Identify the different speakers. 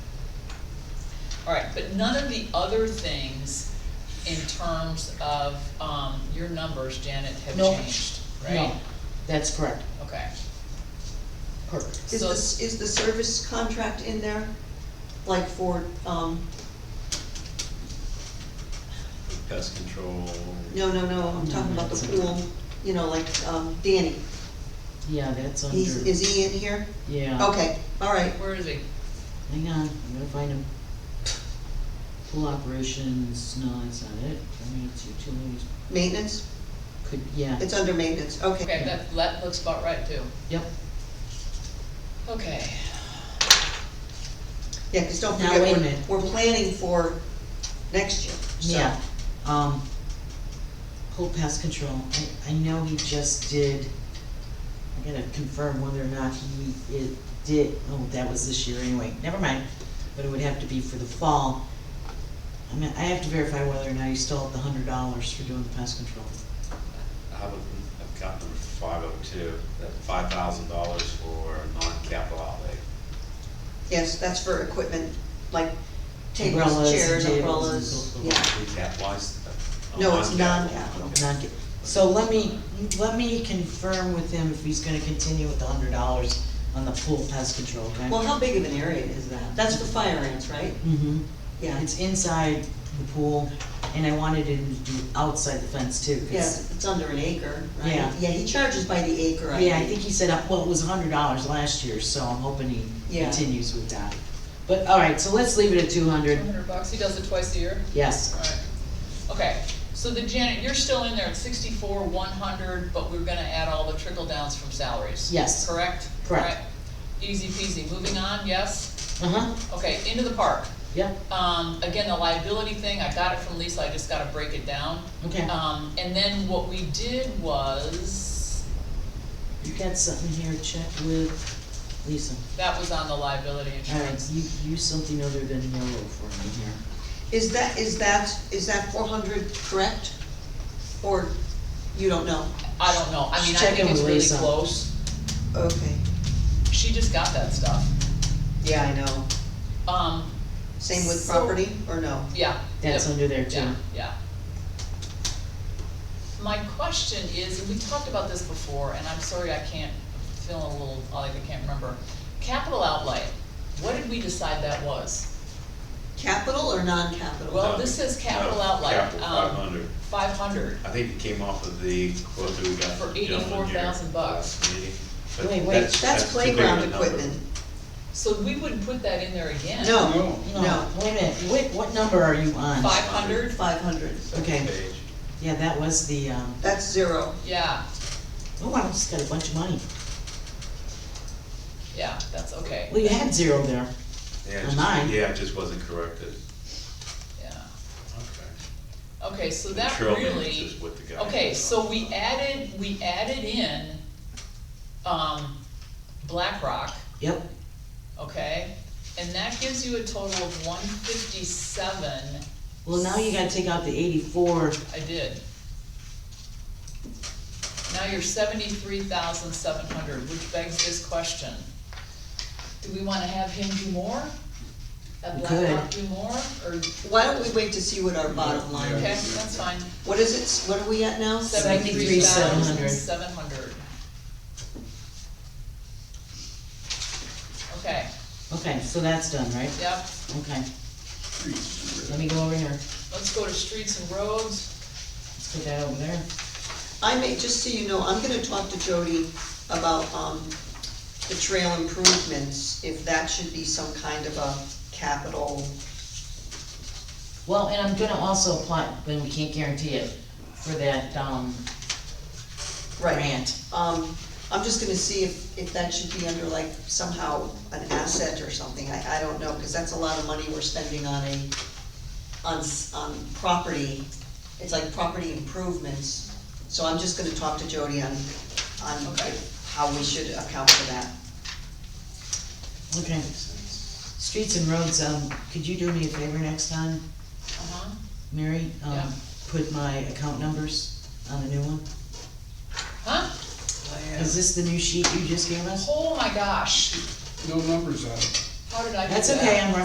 Speaker 1: Alright, but none of the other things in terms of, um, your numbers, Janet, have
Speaker 2: No.
Speaker 1: changed, right?
Speaker 2: No, that's correct,
Speaker 1: Okay,
Speaker 2: perfect.
Speaker 3: Is
Speaker 1: So-
Speaker 3: this, is the service contract in there? Like for, um,
Speaker 4: pest control.
Speaker 3: no, no, no, I'm talking about the pool, you know, like, um, Danny,
Speaker 2: Yeah, that's under,
Speaker 3: he's, is he in here?
Speaker 2: yeah.
Speaker 3: Okay, all right,
Speaker 1: where is he?
Speaker 2: Hang on, I'm gonna find him. Pool operations, no, that's not it, I mean, it's utilities,
Speaker 3: maintenance,
Speaker 2: could, yeah,
Speaker 3: it's under maintenance, okay.
Speaker 1: Okay, that, that looks about right too.
Speaker 2: yep.
Speaker 1: Okay,
Speaker 3: Yeah, cause don't
Speaker 2: Now,
Speaker 3: forget,
Speaker 2: wait a
Speaker 3: we're,
Speaker 2: minute.
Speaker 3: we're planning for next year, so.
Speaker 2: Yeah, um, pool pest control, I, I know he just did, I gotta confirm whether or not he, it did, oh, that was this year anyway, never mind, but it would have to be for the fall. I mean, I have to verify whether or not he's still at the hundred dollars for doing the pest control.
Speaker 4: I have, a- I've got number five oh two, that five thousand dollars for non-capital outlay.
Speaker 3: Yes, that's for equipment, like tables,
Speaker 2: Umbrellas and tables
Speaker 3: chairs,
Speaker 2: and
Speaker 3: umbrellas,
Speaker 2: so forth.
Speaker 3: yeah.
Speaker 4: We capitalized. uh,
Speaker 3: No, it's
Speaker 4: non-capital.
Speaker 3: non-capital.
Speaker 2: Not get- So let me, let me confirm with him if he's gonna continue with the hundred dollars on the pool pest control, okay?
Speaker 3: Well, how big of an area is that? That's for fire ants, right?
Speaker 2: Mm-hmm.
Speaker 3: Yeah,
Speaker 2: It's inside the pool, and I wanted him to do outside the fence too, 'cause-
Speaker 3: yeah, it's under an acre, right?
Speaker 2: Yeah.
Speaker 3: Yeah, he charges by the acre, I think.
Speaker 2: Yeah, I think he said, uh, well, it was hundred dollars last year, so I'm hoping he
Speaker 3: Yeah.
Speaker 2: continues with that. But, all right, so let's leave it at two
Speaker 1: two
Speaker 2: hundred,
Speaker 1: hundred bucks, he does it twice a year?
Speaker 2: yes,
Speaker 1: Alright, okay, so the Janet, you're still in there at sixty-four, one hundred, but we're gonna add all the trickle downs from salaries.
Speaker 2: Yes.
Speaker 1: Correct?
Speaker 2: Correct.
Speaker 1: Alright, Easy peasy, moving on, yes?
Speaker 2: uh-huh,
Speaker 1: Okay, into the park.
Speaker 2: yep,
Speaker 1: Um, again, the liability thing, I got it from Lisa, I just gotta break it down.
Speaker 2: okay.
Speaker 3: Oh.
Speaker 1: Um, and then what we did was,
Speaker 2: You got something here, check with Lisa.
Speaker 1: that was on the liability
Speaker 2: All right,
Speaker 1: insurance.
Speaker 2: you, use something other than yellow for me here.
Speaker 3: Is that, is that, is that four hundred correct? Or you don't know?
Speaker 1: I don't know, I mean, I
Speaker 2: Check in
Speaker 1: think it's
Speaker 2: with
Speaker 1: really
Speaker 2: Lisa.
Speaker 1: close.
Speaker 3: Okay.
Speaker 1: She just got that stuff.
Speaker 3: Yeah, I know.
Speaker 1: Um,
Speaker 3: Same with
Speaker 1: So-
Speaker 3: property, or no?
Speaker 1: yeah.
Speaker 2: That's
Speaker 1: Yep.
Speaker 2: under there
Speaker 1: Yeah,
Speaker 2: too.
Speaker 1: yeah. My question is, and we talked about this before, and I'm sorry, I can't, I'm feeling a little, like I can't remember. Capital outlay, what did we decide that was?
Speaker 3: Capital or non-capital?
Speaker 1: Well, this is capital
Speaker 4: No,
Speaker 1: outlay,
Speaker 4: Capital
Speaker 1: um,
Speaker 4: five hundred.
Speaker 1: Five hundred,
Speaker 4: I think it came off of the quote that we got
Speaker 1: For
Speaker 4: from the gentleman here.
Speaker 1: $84,000 bucks.
Speaker 4: last meeting. But
Speaker 2: Wait, wait,
Speaker 4: that's-
Speaker 3: That's
Speaker 4: too big of a
Speaker 3: playground
Speaker 4: number.
Speaker 3: equipment.
Speaker 1: so we wouldn't put that in there again.
Speaker 3: No, no,
Speaker 2: Wait a minute, wait, what number are you on?
Speaker 1: Five hundred,
Speaker 3: five hundred.
Speaker 4: Second
Speaker 2: Okay.
Speaker 4: page.
Speaker 2: Yeah, that was the, um,
Speaker 3: That's zero.
Speaker 1: yeah,
Speaker 2: oh, I just got a bunch of money.
Speaker 1: yeah, that's okay,
Speaker 2: Well, you had zero there.
Speaker 4: Yeah, it
Speaker 2: On
Speaker 4: just-
Speaker 2: mine.
Speaker 4: Yeah, it just wasn't corrected.
Speaker 1: yeah.
Speaker 4: Okay.
Speaker 1: Okay, so
Speaker 4: The
Speaker 1: that
Speaker 4: trail
Speaker 1: really.
Speaker 4: mix is what the guy
Speaker 1: Okay,
Speaker 4: was
Speaker 1: so
Speaker 4: on.
Speaker 1: we added, we added in, um, BlackRock,
Speaker 2: Yep,
Speaker 1: okay? And that gives you a total of one fifty-seven,
Speaker 2: well, now you gotta take out the eighty-four,
Speaker 1: I did. Now you're seventy-three thousand seven hundred, which begs this question. Do we wanna have him do more? Have
Speaker 2: We
Speaker 1: BlackRock do more, or,
Speaker 3: Why don't we wait to see what our bottom line
Speaker 1: okay,
Speaker 3: is?
Speaker 1: that's fine.
Speaker 3: What is it, what are we at now?
Speaker 1: Seventy-three thousand
Speaker 2: 73,700.
Speaker 1: seven hundred. Okay,
Speaker 2: okay, so that's done, right?
Speaker 1: yep,
Speaker 2: Okay. Let me go over here,
Speaker 1: let's go to streets and roads,
Speaker 2: let's put that over there.
Speaker 3: I may, just so you know, I'm gonna talk to Jody about, um, the trail improvements, if that should be some kind of a capital.
Speaker 2: Well, and I'm gonna also apply, but we can't guarantee it, for that, um, grant.
Speaker 3: Um, I'm just gonna see if, if that should be under like somehow an asset or something, I, I don't know, cause that's a lot of money we're spending on a, on, s- on property, it's like property improvements, so I'm just gonna talk to Jody on, on
Speaker 1: Okay.
Speaker 3: how we should account for that.
Speaker 2: Okay. Streets and roads, um, could you do me a favor next time,
Speaker 1: uh-huh,
Speaker 2: Mary? Um,
Speaker 1: Yeah.
Speaker 2: Put my account numbers on the new one?
Speaker 1: huh?
Speaker 2: Is this the new sheet you just gave us?
Speaker 1: Oh my gosh,
Speaker 5: No numbers on it.
Speaker 1: how did I do that?
Speaker 2: That's okay, I'm